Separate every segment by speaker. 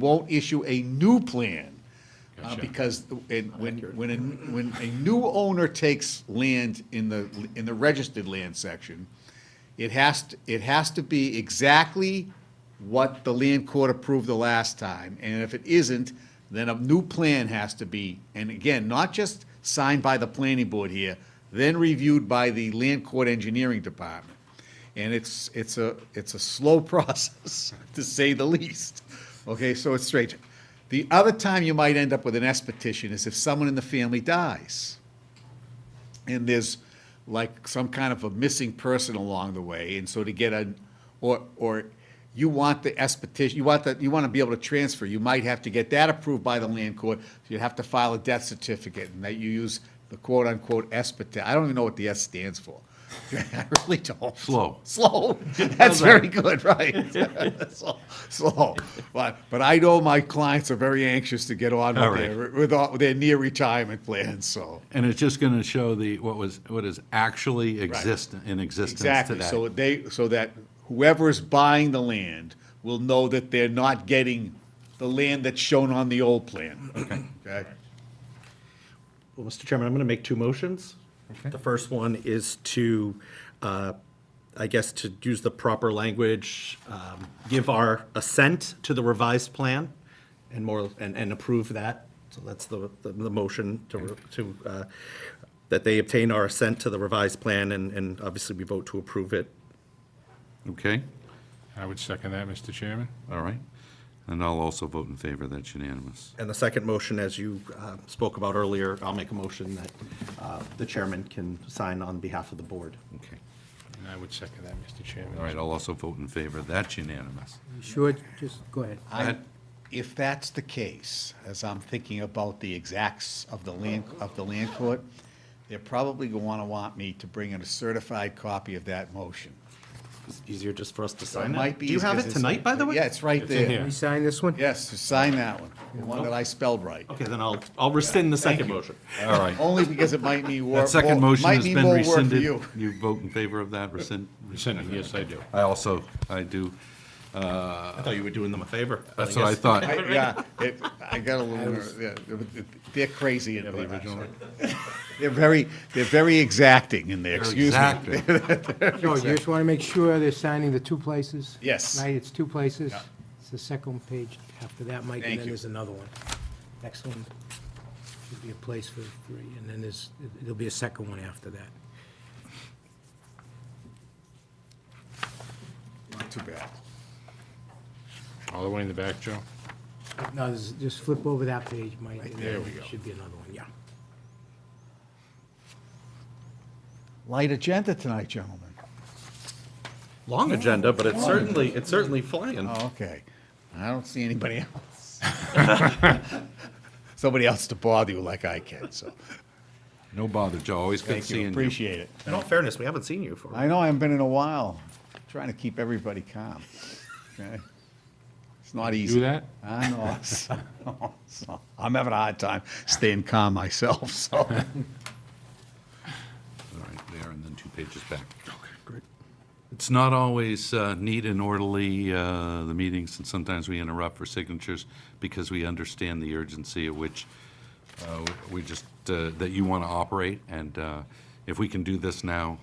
Speaker 1: won't issue a new plan. uh,
Speaker 2: Gotcha.
Speaker 1: Because it- when, when, a- when a new owner takes land in the, in the registered land section, it has, to- it has to be exactly what the land court approved the last time. And if it isn't, then a new plan has to be, and again, not just signed by the planning board here, then reviewed by the land court engineering department. And it's, it's a, it's a slow process, to say the least. Okay, so it's strange. The other time you might end up with an S petition is if someone in the family dies. And there's like some kind of a missing person along the way, and so to get a, or, or you want the S petition, you want that, you want to be able to transfer, you might have to get that approved by the land court. You'd have to file a death certificate, and that you use the quote-unquote S petition. I don't even know what the S stands for. I really don't.
Speaker 2: Slow.
Speaker 1: Slow. That's very good, right? Slow- Slow. But, but I know my clients are very anxious to get on
Speaker 2: All
Speaker 1: with
Speaker 2: right.
Speaker 1: their, with all- their near retirement plans, so.
Speaker 2: And it's just going to show the, what was, what is actually exist, in existence today.
Speaker 1: Exactly, so they, so that whoever is buying the land will know that they're not getting the land that's shown on the old plan. Okay.
Speaker 3: Well, Mr. Chairman, I'm going to make two motions. The first one is to, uh, I guess, to use the proper language, um, give our assent to the revised plan and more, and and approve that. So that's the, the- the motion to, re- to, uh, that they obtain our assent to the revised plan and, and obviously we vote to approve it.
Speaker 2: Okay,
Speaker 4: I would second that, Mr. Chairman.
Speaker 2: all right. And I'll also vote in favor, that's unanimous.
Speaker 3: And the second motion, as you uh, spoke about earlier, I'll make a motion that uh, the chairman can sign on behalf of the board.
Speaker 2: Okay,
Speaker 4: And I would second that, Mr.
Speaker 2: all
Speaker 4: Chairman.
Speaker 2: right, I'll also vote in favor, that's unanimous.
Speaker 5: Sure, just go ahead.
Speaker 1: I,
Speaker 2: That-
Speaker 1: if that's the case, as I'm thinking about the exacts of the land, of the land court, they're probably going to want me to bring in a certified copy of that motion.
Speaker 3: It's easier just for us to
Speaker 1: It
Speaker 3: sign
Speaker 1: might
Speaker 3: it.
Speaker 1: be.
Speaker 3: Do you have it
Speaker 1: because it's-
Speaker 3: tonight, by the way?
Speaker 1: Yeah, it's right
Speaker 4: in
Speaker 1: there.
Speaker 4: here.
Speaker 5: We sign this one?
Speaker 1: Yes, sign that one, the one that I spelled right.
Speaker 3: Okay, then I'll, I'll rescind the second motion.
Speaker 2: All right,
Speaker 1: Only because it might mean war,
Speaker 2: that second
Speaker 1: more-
Speaker 2: motion
Speaker 1: might
Speaker 2: has
Speaker 1: mean
Speaker 2: been
Speaker 1: more work for
Speaker 2: rescinded.
Speaker 1: you.
Speaker 2: You vote in favor of that, rescind?
Speaker 4: Rescind it, yes, I do.
Speaker 2: I also, I do,
Speaker 3: I thought you were doing them a favor. but
Speaker 2: that's what I
Speaker 3: guess-
Speaker 2: thought.
Speaker 1: I- Yeah, it, I got a little, nervous, yeah, it- it- they're crazy in
Speaker 4: the
Speaker 1: there.
Speaker 4: original one?
Speaker 1: They're very, they're very exacting in there, excuse me.
Speaker 2: Exactly.
Speaker 5: No, you just want to make sure they're signing the two places?
Speaker 1: Yes.
Speaker 5: Right, it's two places. It's the second page after that, Mike,
Speaker 1: Thank
Speaker 5: and then
Speaker 1: you.
Speaker 5: there's another one. Next one should be a place for three, and then there's, there'll be a second one after that.
Speaker 1: Not too bad.
Speaker 4: All the way in the back, Joe?
Speaker 5: No, there's- just flip over that page, Mike. and
Speaker 4: there
Speaker 5: then
Speaker 4: we go.
Speaker 5: Should be another one, yeah.
Speaker 1: Light agenda tonight, gentlemen.
Speaker 3: Long agenda, but it's certainly, it's certainly flying.
Speaker 1: Oh, okay. I don't see anybody else. Somebody else to bother you like I can, so,
Speaker 2: No bother, Joe, always good
Speaker 1: thank
Speaker 2: seeing
Speaker 1: you,
Speaker 2: you.
Speaker 1: appreciate it.
Speaker 3: In all fairness, we haven't seen you for.
Speaker 1: I know I haven't been in a while, trying to keep everybody calm. okay? It's not easy.
Speaker 4: Do that?
Speaker 1: I know. it's- it's not- I'm having a hard time staying calm myself, so.
Speaker 2: All right, there, and then two pages back. Okay, great. It's not always uh, neat and orderly, uh, the meetings, and sometimes we interrupt for signatures because we understand the urgency of which uh, we just, uh, that you want to operate, and uh, if we can do this now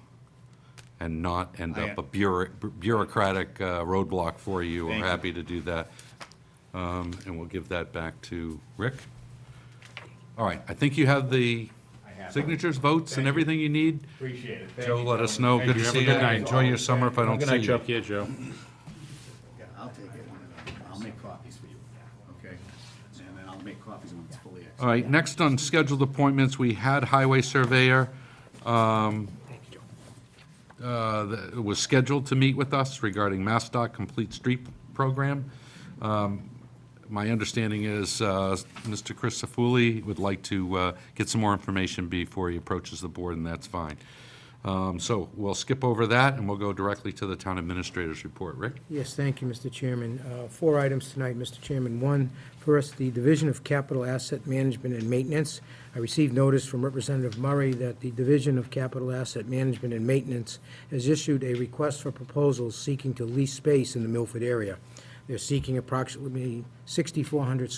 Speaker 2: and not end
Speaker 1: I-
Speaker 2: up a bureau- bureaucratic uh, roadblock for you, we're
Speaker 1: Thank you.
Speaker 2: happy to do that. Um, And we'll give that back to Rick. All right, I think you have the signatures, votes, and everything you need.
Speaker 1: Appreciate it.
Speaker 2: Joe, let us know.
Speaker 4: Thank
Speaker 2: Good
Speaker 4: you.
Speaker 2: to
Speaker 4: Have
Speaker 2: see
Speaker 4: a
Speaker 2: you.
Speaker 4: good night.
Speaker 2: Enjoy your summer if I don't
Speaker 4: Good
Speaker 2: see
Speaker 4: night, Joe.
Speaker 2: you.
Speaker 4: Yeah, Joe.
Speaker 1: I'll take it. I'll make copies for you, okay? And then I'll make copies when it's fully.
Speaker 2: All right, next on scheduled appointments, we had Highway Surveyor. um, uh, that Was scheduled to meet with us regarding MassDOT Complete Street Program. Um, My understanding is uh, Mr. Chris Sefuli would like to uh, get some more information before he approaches the board, and that's fine. Um, So we'll skip over that, and we'll go directly to the Town Administrator's Report. Rick?
Speaker 5: Yes, thank you, Mr. Chairman. Uh, Four items tonight, Mr. Chairman. One, first, the Division of Capital Asset Management and Maintenance. I received notice from Representative Murray that the Division of Capital Asset Management and Maintenance has issued a request for proposals seeking to lease space in the Milford area. They're seeking approximately 6,400